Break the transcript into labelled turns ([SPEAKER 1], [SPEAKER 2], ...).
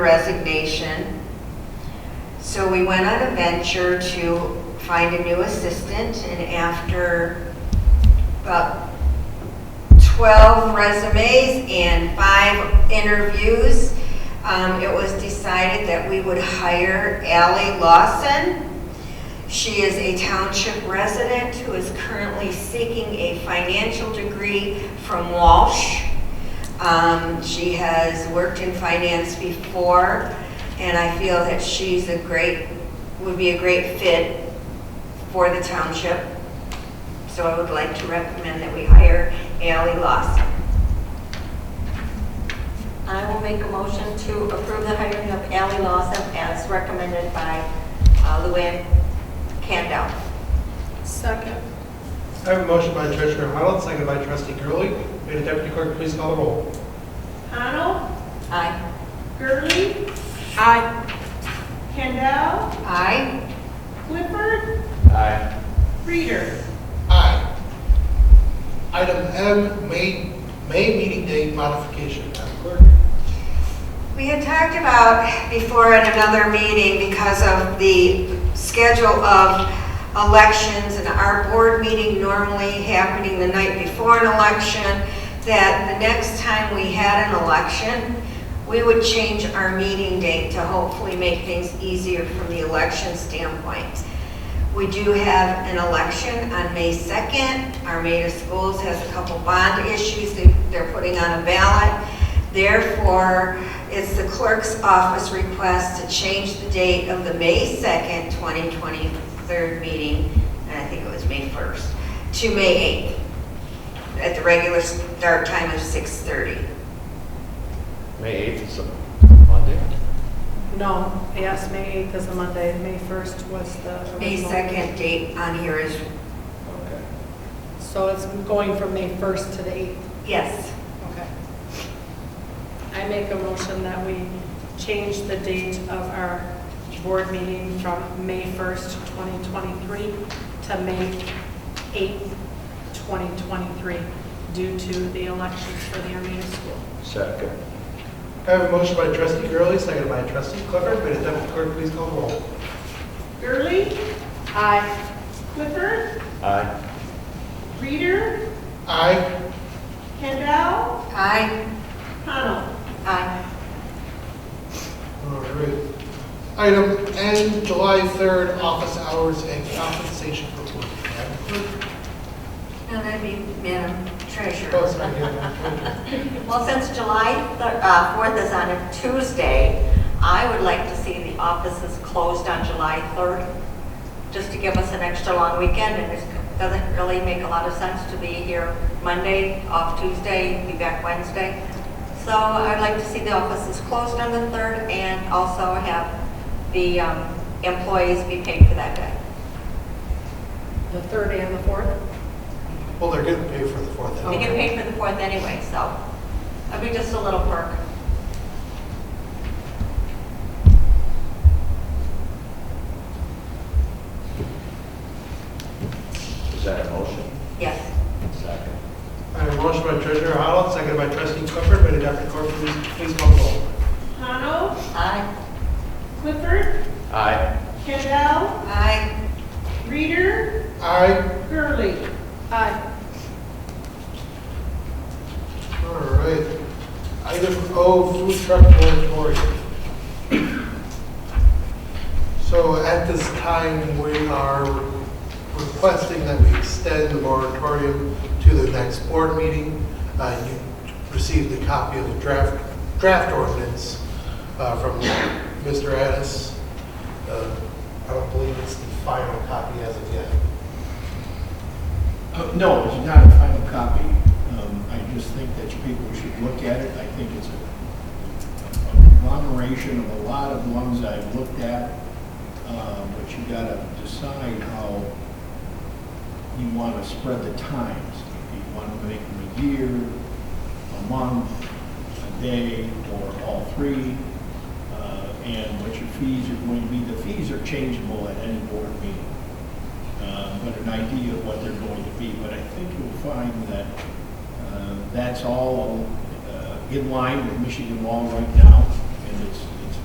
[SPEAKER 1] resignation. So we went on a venture to find a new assistant, and after about 12 resumes and five interviews, um, it was decided that we would hire Ally Lawson. She is a township resident who is currently seeking a financial degree from Walsh. Um, She has worked in finance before, and I feel that she's a great, would be a great fit for the township. So I would like to recommend that we hire Ally Lawson.
[SPEAKER 2] I will make a motion to approve the hiring of Ally Lawson as recommended by uh, Luann Candell.
[SPEAKER 3] Second.
[SPEAKER 4] I have a motion by Treasurer Arnold, seconded by Trustee Gurley. May the Deputy Clerk please call the roll.
[SPEAKER 3] Arnold,
[SPEAKER 2] Aye.
[SPEAKER 3] Gurley,
[SPEAKER 1] Aye.
[SPEAKER 3] Kendall,
[SPEAKER 1] Aye.
[SPEAKER 3] Clifford,
[SPEAKER 4] Aye.
[SPEAKER 3] Reader.
[SPEAKER 5] Aye. Item M, May, May meeting date modification. Madam Clerk?
[SPEAKER 1] We had talked about before at another meeting because of the schedule of elections and our board meeting normally happening the night before an election, that the next time we had an election, we would change our meeting date to hopefully make things easier from the election standpoint. We do have an election on May 2nd. Armada Schools has a couple bond issues that they're putting on a ballot. Therefore, it's the clerk's office request to change the date of the May 2nd, 2023 meeting, and I think it was May 1st, to May 8th, at the regular start time of 6:30.
[SPEAKER 6] May 8th is a Monday.
[SPEAKER 3] No, yes, May 8th is a Monday, May 1st was the.
[SPEAKER 1] May
[SPEAKER 3] original.
[SPEAKER 1] 2nd date on here is,
[SPEAKER 6] Okay.
[SPEAKER 3] So it's going from May 1st to the 8th.
[SPEAKER 1] yes,
[SPEAKER 3] Okay. I make a motion that we change the date of our board meeting from May 1st, 2023 to May 8th, 2023, due to the elections for the Arena School.
[SPEAKER 6] Second.
[SPEAKER 4] I have a motion by Trustee Gurley, seconded by Trustee Clifford. May the Deputy Clerk please call the roll.
[SPEAKER 3] Gurley? Aye.
[SPEAKER 7] Clifford,
[SPEAKER 6] Aye.
[SPEAKER 7] Reader,
[SPEAKER 5] Aye.
[SPEAKER 7] Kendall,
[SPEAKER 1] aye,
[SPEAKER 7] Connell.
[SPEAKER 1] aye,
[SPEAKER 5] All right. Item N, July 3rd, office hours and compensation for work. Madam Clerk?
[SPEAKER 1] and that'd be Madam Treasurer.
[SPEAKER 5] Oh, sorry, yeah, Madam Clerk.
[SPEAKER 2] Well, since July thir- uh, 4th is on a Tuesday, I would like to see the offices closed on July 3rd, just to give us an extra long weekend, and it doesn't really make a lot of sense to be here Monday, off Tuesday, be back Wednesday. So I'd like to see the offices closed on the 3rd, and also have the um, employees be paid for that day.
[SPEAKER 3] The 3rd and the 4th?
[SPEAKER 5] Well, they're getting paid for the 4th.
[SPEAKER 2] They get paid for the 4th anyway, so it'll be just a little perk.
[SPEAKER 6] Is that a motion?
[SPEAKER 2] Yes.
[SPEAKER 6] Second.
[SPEAKER 4] I have a motion by Treasurer Arnold, seconded by Trustee Clifford. May the Deputy Clerk please, please call the roll.
[SPEAKER 7] Connell,
[SPEAKER 2] Aye.
[SPEAKER 7] Clifford,
[SPEAKER 6] Aye.
[SPEAKER 7] Kendall,
[SPEAKER 1] Aye.
[SPEAKER 7] Reader,
[SPEAKER 5] Aye.
[SPEAKER 7] Gurley.
[SPEAKER 3] Aye.
[SPEAKER 5] All right. Item O, food truck moratorium. So at this time, we are requesting that we extend the moratorium to the next board meeting. Uh, You received a copy of the draft, draft ordinance uh, from Mr. Addis. Uh, I don't believe it's the final copy as of yet.
[SPEAKER 8] Uh, No, it's not a final copy. Um, I just think that you people should look at it. I think it's a- a conglomeration of a lot of ones I've looked at, uh, but you gotta decide how you want to spread the times. If you want to make them a year, a month, a day, or all three, uh, and what your fees are going to be. The fees are changeable at any board meeting uh, but an idea of what they're going to be. But I think you'll find that uh, that's all uh, in line with Michigan law right now, and it's